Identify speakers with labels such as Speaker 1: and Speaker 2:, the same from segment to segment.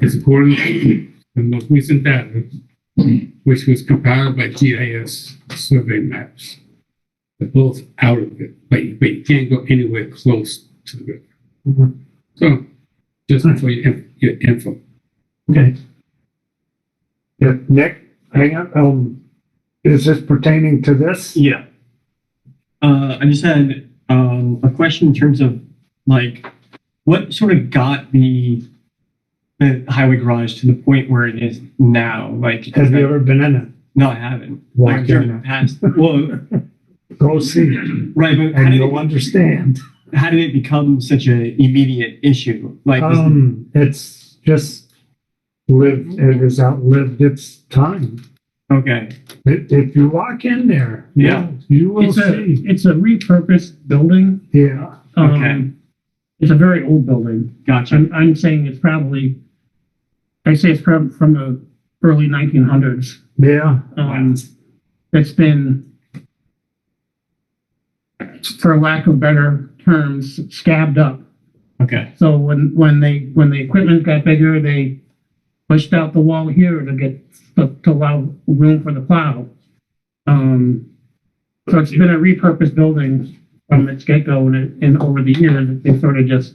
Speaker 1: is according to the most recent data, which was compiled by GIS survey maps. They're both out of it, but you, but you can't go anywhere close to the river.
Speaker 2: Mhm.
Speaker 1: So, just for your, in- your info.
Speaker 2: Okay.
Speaker 3: Yeah, Nick, hang on, um, is this pertaining to this?
Speaker 2: Yeah. Uh, I just had um, a question in terms of like what sort of got the the highway garage to the point where it is now. Like,
Speaker 3: Have you ever been in it?
Speaker 2: No, I haven't.
Speaker 3: Walk
Speaker 2: I've driven
Speaker 3: in
Speaker 2: past. Well,
Speaker 3: it, go see it,
Speaker 2: right, but how
Speaker 3: and
Speaker 2: did,
Speaker 3: you'll
Speaker 2: it,
Speaker 3: understand.
Speaker 2: how did it become such an immediate issue? Like, is-
Speaker 3: Um, it's just lived, it has outlived its time.
Speaker 2: okay,
Speaker 3: If, if you walk in there,
Speaker 2: Yeah.
Speaker 3: yeah, you will
Speaker 4: It's a,
Speaker 3: see.
Speaker 4: it's a repurposed building.
Speaker 3: Yeah,
Speaker 4: Um,
Speaker 2: Okay.
Speaker 4: It's a very old building.
Speaker 2: gotcha.
Speaker 4: I'm, I'm saying it's probably, I say it's from, from the early nineteen hundreds.
Speaker 3: yeah,
Speaker 4: Um, it's been, for lack of better terms, scabbed up.
Speaker 2: Okay,
Speaker 4: So when, when they, when the equipment got bigger, they pushed out the wall here to get, to to allow room for the plow. Um, so it's been a repurposed building from its get-go and it, and over the years, they sort of just,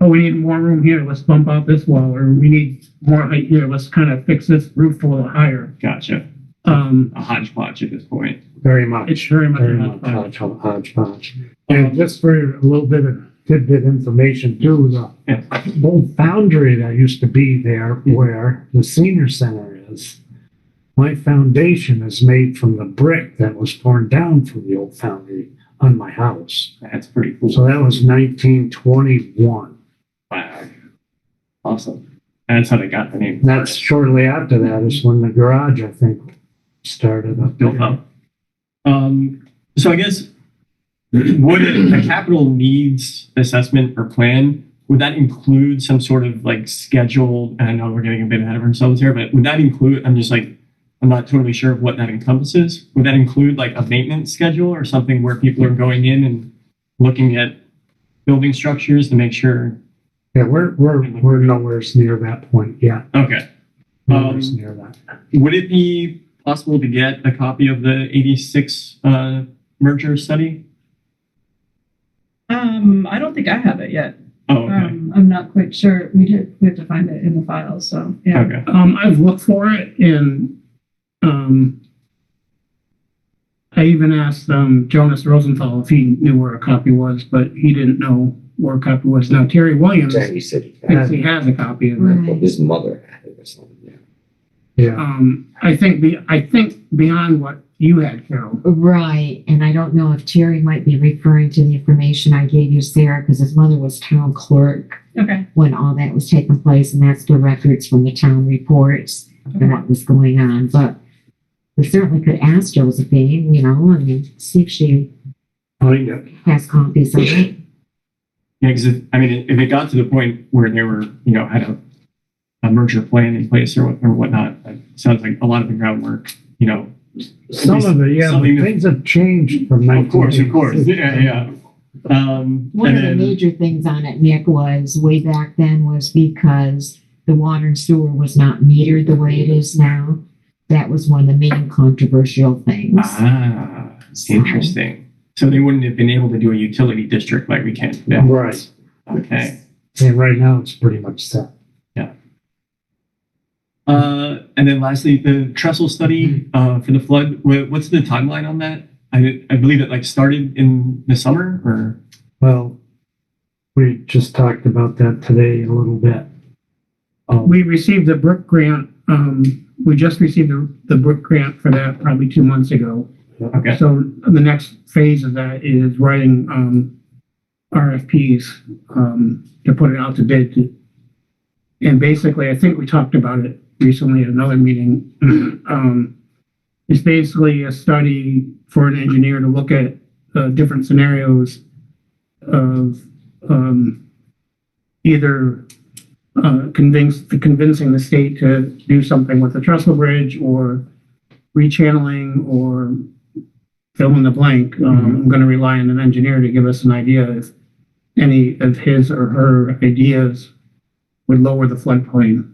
Speaker 4: oh, we need more room here, let's bump out this wall, or we need more height here, let's kind of fix this roof a little higher.
Speaker 2: gotcha.
Speaker 4: Um,
Speaker 2: A hodgepodge at this point.
Speaker 3: very much.
Speaker 4: it's very much.
Speaker 3: Very
Speaker 4: a
Speaker 3: much
Speaker 4: hodgepodge.
Speaker 3: hodge- hodgepodge. And just for a little bit of tidbit information too,
Speaker 2: Yeah.
Speaker 3: the old foundry that used to be there where the senior center is, my foundation is made from the brick that was torn down from the old foundry on my house.
Speaker 2: That's pretty cool.
Speaker 3: So that was nineteen twenty-one.
Speaker 2: Wow. Awesome. That's how they got the name.
Speaker 3: That's shortly after that is when the garage, I think, started up.
Speaker 2: built up. Um, so I guess would a capital needs assessment or plan would that include some sort of like scheduled? And I know we're getting a bit ahead of ourselves here, but would that include? I'm just like I'm not totally sure of what that encompasses. Would that include like a maintenance schedule or something where people are going in and looking at building structures to make sure?
Speaker 3: Yeah, we're, we're, we're nowhere near that point yet.
Speaker 2: Okay.
Speaker 3: Nowhere
Speaker 2: Um,
Speaker 3: near that.
Speaker 2: Would it be possible to get a copy of the 86 uh, merger study?
Speaker 5: Um, I don't think I have it yet.
Speaker 2: Oh, okay.
Speaker 5: Um, I'm not quite sure. We did, we have to find it in the files, so, yeah.
Speaker 2: Okay.
Speaker 4: Um, I've looked for it and, um, I even asked, um, Jonas Rosenthal if he knew where a copy was, but he didn't know where a copy was. Now Terry Williams
Speaker 6: Terry said he had,
Speaker 4: thinks he has a copy of it.
Speaker 6: well, his mother had it or something. yeah.
Speaker 3: Yeah.
Speaker 4: Um, I think, be- I think beyond what you had, Carol.
Speaker 7: Right, and I don't know if Terry might be referring to the information I gave you, Sarah, because his mother was town clerk
Speaker 5: Okay.
Speaker 7: when all that was taking place, and that's the records from the town reports and what was going on, but we certainly could ask Josephine, you know, and see if she
Speaker 3: Find it.
Speaker 7: has copies of it.
Speaker 2: Yeah, because if, I mean, if it got to the point where they were, you know, had a, a merger plan in place or, what, or whatnot, it sounds like a lot of the groundwork, you know.
Speaker 3: Some of the, yeah,
Speaker 2: Something
Speaker 3: but
Speaker 2: that-
Speaker 3: things have changed from nineteen.
Speaker 2: Of course, of course. Yeah, yeah. Um,
Speaker 7: One
Speaker 2: and
Speaker 7: of the
Speaker 2: then-
Speaker 7: major things on it, Nick, was way back then was because the water and sewer was not metered the way it is now. That was one of the main controversial things.
Speaker 2: ah,
Speaker 7: So-
Speaker 2: interesting. So they wouldn't have been able to do a utility district like we can today.
Speaker 3: Right,
Speaker 2: Okay.
Speaker 3: and right now it's pretty much set.
Speaker 2: Uh, and then lastly, the trestle study uh, for the flood. Wha- What's the timeline on that? I, did- I believe it like started in the summer or
Speaker 3: Well, we just talked about that today a little bit. Um,
Speaker 4: We received the Brook grant, um, we just received the, the Brook grant for that probably two months ago.
Speaker 2: okay.
Speaker 4: So the next phase of that is writing, um, RFPs, um, to put it out to bid. to- And basically, I think we talked about it recently at another meeting. Um, it's basically a study for an engineer to look at, uh, different scenarios of, um, either, uh, convince, convincing the state to do something with the trestle bridge or rechanneling or fill in the blank. Um, I'm going to rely on an engineer to give us an idea if any of his or her ideas would lower the floodplain.